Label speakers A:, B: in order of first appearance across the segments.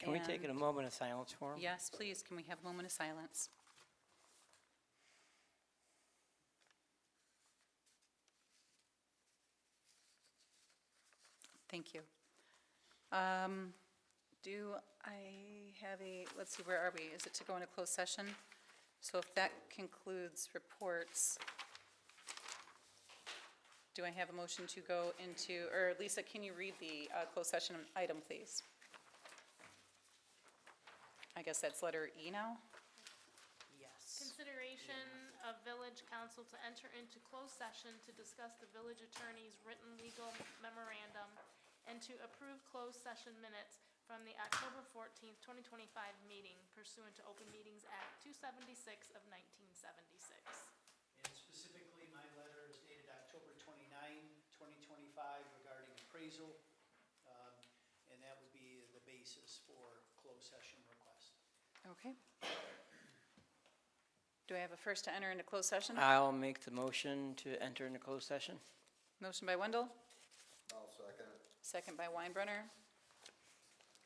A: Can we take it a
B: And-
A: moment of silence for him?
B: Yes, please, can we have a moment of silence? Thank you. Um, Do I have a, let's see, where are we? Is it to go into closed session? So if that concludes reports, do I have a motion to go into, or Lisa, can you read the uh, closed session item, please? I guess that's letter E now?
C: Yes.
D: Consideration of village council to enter into closed session to discuss the village attorney's written legal memorandum and to approve closed session minutes from the October fourteenth, twenty twenty-five meeting pursuant to Open Meetings Act two seventy-six of nineteen seventy-six.
C: And specifically, my letter is dated October 29, 2025 regarding appraisal. um, And that would be the basis for closed session request.
B: Okay. Do I have a first to enter into closed session?
A: I'll make the motion to enter into closed session.
B: Motion by Wendell,
E: I'll second it.
B: second by Weinbrenner.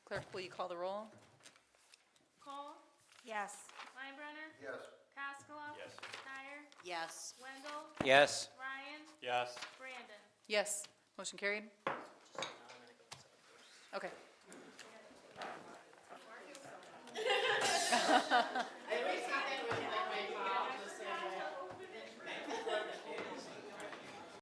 B: Clerk, will you call the roll?
D: Cole? Yes. Weinbrenner?
E: Yes.
D: Cascola? Yes. Tyre?
F: Yes.
D: Wendell?
A: Yes.
D: Ryan?
G: Yes.
D: Brandon?
B: Yes, motion carried. Okay.